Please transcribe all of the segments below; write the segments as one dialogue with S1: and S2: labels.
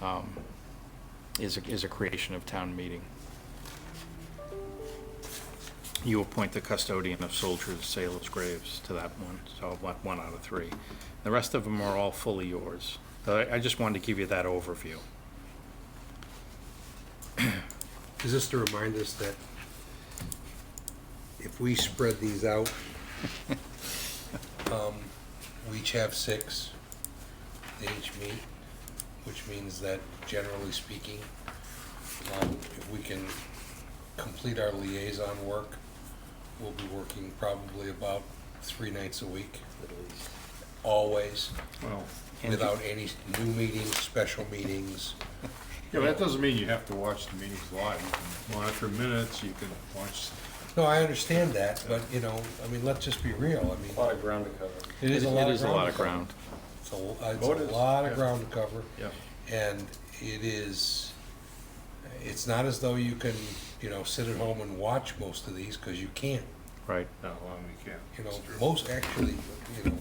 S1: um, is, a- is a creation of town meeting. You appoint the custodian of soldiers, sailors' graves to that one, so one, one out of three. The rest of them are all fully yours. Uh, I, I just wanted to give you that overview.
S2: Is this to remind us that if we spread these out, um, we each have six, they each meet, which means that generally speaking, um, if we can complete our liaison work, we'll be working probably about three nights a week. At least. Always,
S3: Well,
S1: And if you-
S2: without any new meetings, special meetings.
S3: yeah, that doesn't mean you have to watch the meetings live. You can monitor minutes, you can watch,
S2: No, I understand that, but, you know, I mean, let's just be real, I mean.
S4: A lot of ground to cover.
S2: It is a lot of ground.
S1: It is a lot of ground.
S2: It's a, it's
S3: Voters,
S2: a lot of
S3: yeah.
S2: ground to cover,
S3: yeah.
S2: and it is, it's not as though you can, you know, sit at home and watch most of these, because you can't.
S1: Right.
S3: No, well, we can't.
S2: You know, most actually, you know,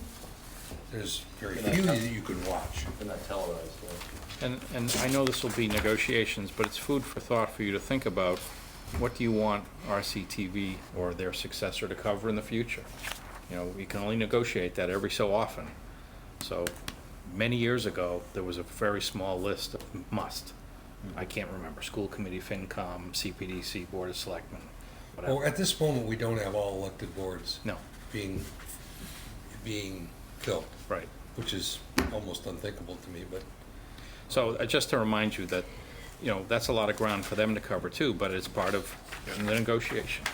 S2: there's very few that you can watch.
S4: They're not televised, right?
S1: And, and I know this will be negotiations, but it's food for thought for you to think about. What do you want RCTV or their successor to cover in the future? You know, we can only negotiate that every so often. So many years ago, there was a very small list of must. I can't remember, school committee, FinCom, CPDC, Board of Selectmen,
S2: Well,
S1: whatever.
S2: at this moment, we don't have all elected boards
S1: No,
S2: being, being filled,
S1: right.
S2: which is almost unthinkable to me, but
S1: So uh, just to remind you that, you know, that's a lot of ground for them to cover too, but it's part of the negotiation.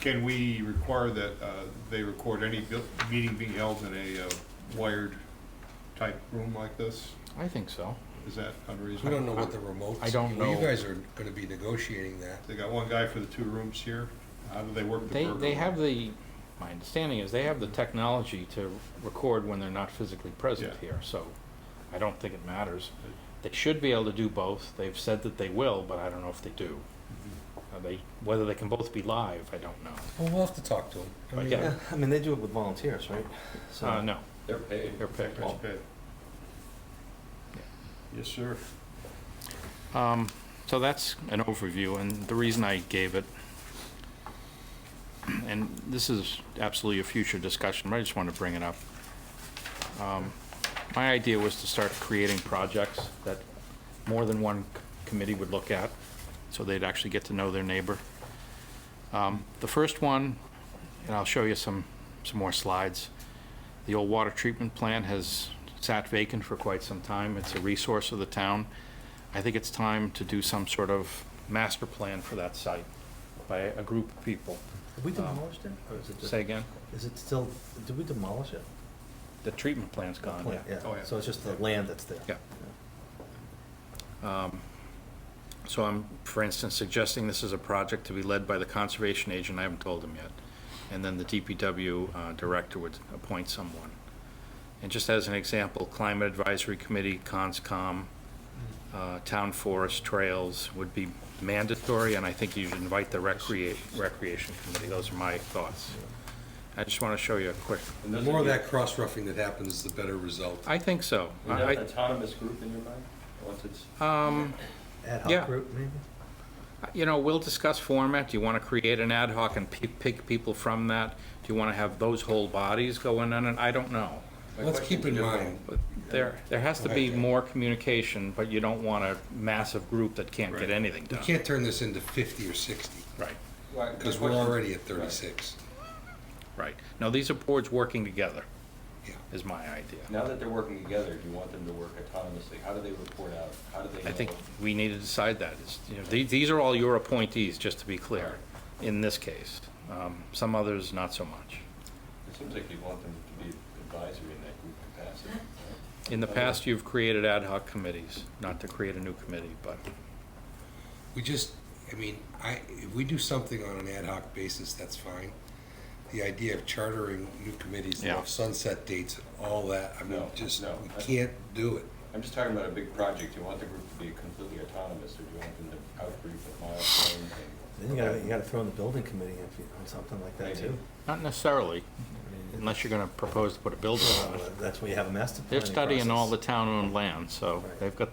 S3: Can we require that uh, they record any bu- meeting being held in a uh, wired type room like this?
S1: I think so.
S3: Is that
S2: we don't know
S3: unreasonable?
S2: what the remotes.
S1: I don't
S2: well,
S1: know.
S2: You guys are gonna be negotiating that.
S3: They got one guy for the two rooms here. How do they work the
S1: They,
S3: burger?
S1: they have the, my understanding is they have the technology to record when they're not physically present
S3: Yeah.
S1: here, so I don't think it matters. They should be able to do both. They've said that they will, but I don't know if they do.
S3: Mm-hmm.
S1: Are they, whether they can both be live, I don't know.
S2: Well, we'll have to talk to them. I mean,
S1: Yeah.
S5: Yeah, I mean, they do it with volunteers, right? So
S1: Uh, no,
S4: They're paid.
S1: they're picked.
S3: That's good. Yes, sir.
S1: Um, so that's an overview, and the reason I gave it, and this is absolutely a future discussion, but I just want to bring it up. Um, My idea was to start creating projects that more than one c- committee would look at, so they'd actually get to know their neighbor. Um, The first one, and I'll show you some, some more slides, the old water treatment plant has sat vacant for quite some time. It's a resource of the town. I think it's time to do some sort of master plan for that site by a group of people.
S5: Have we demolished it, or is it just,
S1: Say again?
S5: is it still, did we demolish it?
S1: The treatment plant's gone, yeah.
S3: Oh, yeah.
S5: So it's just the land that's there?
S1: Yeah. Um, So I'm, for instance, suggesting this is a project to be led by the conservation agent, I haven't told him yet. And then the DPW uh, director would appoint someone. And just as an example, Climate Advisory Committee, CONSCOM, uh, Town Forest Trails would be mandatory, and I think you should invite the recrea- Recreation Committee. Those are my thoughts. I just want to show you a quick,
S4: And
S2: The
S4: those
S2: more
S4: are
S2: of
S4: your-
S2: that cross-roughing that happens, the better result.
S1: I think so.
S4: Is that
S1: I-
S4: an autonomous group in your mind? Once it's,
S1: Um,
S5: Ad
S1: Yeah. Uh,
S5: hoc group, maybe?
S1: You know, we'll discuss format. Do you want to create an ad hoc and pick, pick people from that? Do you want to have those whole bodies going in? And I don't know.
S4: my
S2: Let's
S4: question's
S2: keep in
S4: different.
S2: mind,
S1: But there, there has to be more communication, but you don't want a massive group that can't get
S3: Right.
S1: anything
S2: we
S1: done.
S2: can't turn this into fifty or sixty,
S1: Right,
S4: Right, my
S2: because we're
S4: question-
S2: already at
S4: right.
S2: thirty-six.
S1: right. No, these are boards working together,
S2: Yeah.
S1: is my idea.
S4: Now that they're working together, do you want them to work autonomously? How do they report out? How do they know?
S1: I think we need to decide that. It's, you know, these, these are all your appointees, just to be clear, in this case. Um, some others, not so much.
S4: It seems like you want them to be advisory in that group capacity. right?
S1: In the past, you've created ad hoc committees, not to create a new committee, but.
S2: We just, I mean, I, if we do something on an ad hoc basis, that's fine. The idea of chartering new committees, that
S1: Yeah.
S2: have sunset dates, and all that, I mean,
S4: No,
S2: just,
S4: no, I-
S2: we can't do it.
S4: I'm just talking about a big project. Do you want the group to be completely autonomous or do you want them to outgroup with milestones
S5: Then you gotta, you gotta throw in the building committee if you, on something like that
S4: Maybe.
S5: too.
S1: Not necessarily,
S5: I mean,
S1: unless you're going to propose to put a building on it.
S5: That's where you have a master
S1: They're
S5: planning
S1: studying all the
S5: process.
S1: town-owned land, so
S5: Right.
S1: they've got the